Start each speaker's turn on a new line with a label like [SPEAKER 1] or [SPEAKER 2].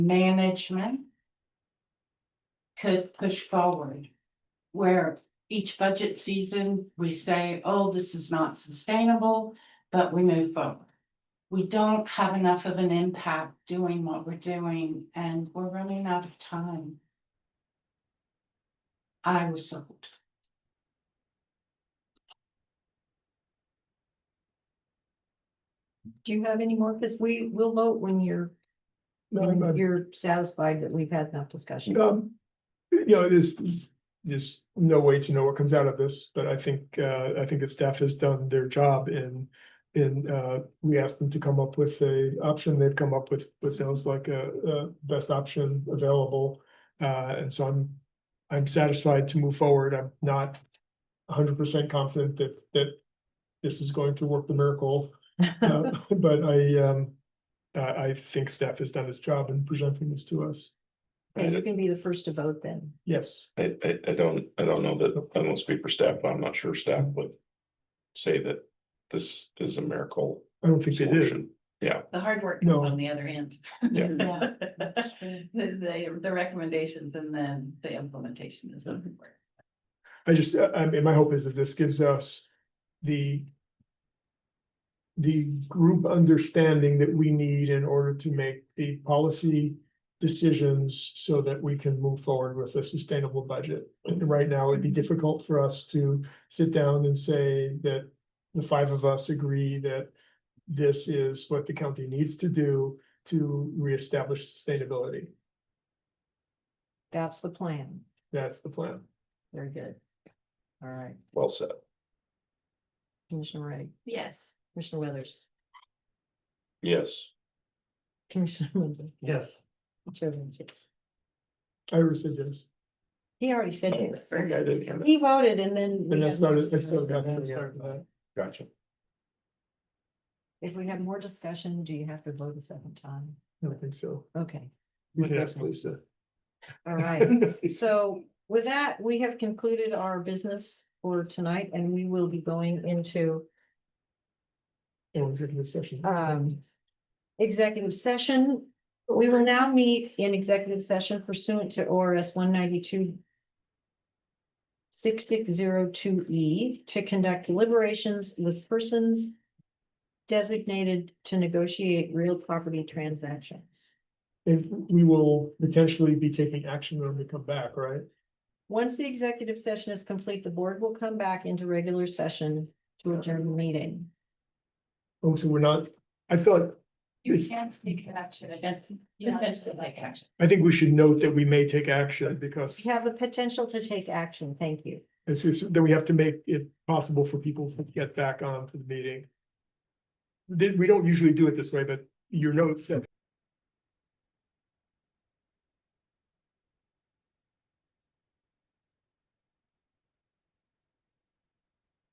[SPEAKER 1] management could push forward. Where each budget season, we say, oh, this is not sustainable, but we move forward. We don't have enough of an impact doing what we're doing and we're running out of time. I was sold.
[SPEAKER 2] Do you have any more? Because we will vote when you're,
[SPEAKER 3] No, I'm
[SPEAKER 2] when
[SPEAKER 3] not-
[SPEAKER 2] you're satisfied that we've had enough discussion.
[SPEAKER 3] Um, you know, there's, there's no way to know what comes out of this, but I think, uh, I think the staff has done their job in. In, uh, we asked them to come up with a option, they've come up with what sounds like a, a best option available. Uh, and so I'm, I'm satisfied to move forward, I'm not hundred percent confident that, that. This is going to work the miracle, uh, but I, um, I, I think staff has done its job in presenting this to us,
[SPEAKER 2] Okay, you're gonna be the first to vote then.
[SPEAKER 3] yes.
[SPEAKER 4] I, I, I don't, I don't know that, I don't speak for staff, but I'm not sure staff would say that this is a miracle
[SPEAKER 3] I don't think they did.
[SPEAKER 4] solution.
[SPEAKER 5] The hard work comes
[SPEAKER 3] No.
[SPEAKER 5] on the other end.
[SPEAKER 4] Yeah.
[SPEAKER 1] Yeah.
[SPEAKER 5] The, the- the recommendations and then the implementation is the hard work.
[SPEAKER 3] I just, I I mean, my hope is that this gives us the the group understanding that we need in order to make the policy decisions so that we can move forward with a sustainable budget. And right now, it'd be difficult for us to sit down and say that the five of us agree that this is what the county needs to do to reestablish sustainability.
[SPEAKER 2] That's the plan.
[SPEAKER 3] That's the plan.
[SPEAKER 2] Very good. All right,
[SPEAKER 4] Well said.
[SPEAKER 2] Commissioner Ray,
[SPEAKER 5] Yes.
[SPEAKER 2] Commissioner Weathers,
[SPEAKER 4] Yes.
[SPEAKER 2] Commissioner Munson,
[SPEAKER 5] Yes.
[SPEAKER 2] Chair Vincent.
[SPEAKER 3] I rescind this.
[SPEAKER 2] He already said yes.
[SPEAKER 4] I did hear that.
[SPEAKER 2] He voted and then. we
[SPEAKER 3] Oh, And I
[SPEAKER 2] have more
[SPEAKER 3] started, I still got.
[SPEAKER 2] discussion.
[SPEAKER 4] Gotcha.
[SPEAKER 2] If we have more discussion, do you have to vote a second time?
[SPEAKER 3] I don't think so.
[SPEAKER 2] Okay,
[SPEAKER 3] You can ask Lisa.
[SPEAKER 2] all right. So with that, we have concluded our business for tonight and we will be going into
[SPEAKER 3] Oh, executive session.
[SPEAKER 2] um executive session. We will now meet in executive session pursuant to ORS one ninety-two six six zero two E to conduct deliberations with persons designated to negotiate real property transactions.
[SPEAKER 3] And we will potentially be taking action when we come back, right?
[SPEAKER 2] Once the executive session is complete, the board will come back into regular session to adjourn the meeting.
[SPEAKER 3] Oh, so we're not, I thought,
[SPEAKER 5] You
[SPEAKER 3] It's-
[SPEAKER 5] can't take action against
[SPEAKER 1] Yeah.
[SPEAKER 5] potentially like action.
[SPEAKER 3] I think we should note that we may take action because
[SPEAKER 2] We have the potential to take action. Thank you.
[SPEAKER 3] it's just that we have to make it possible for people to get back on to the meeting. Did, we don't usually do it this way, but your notes said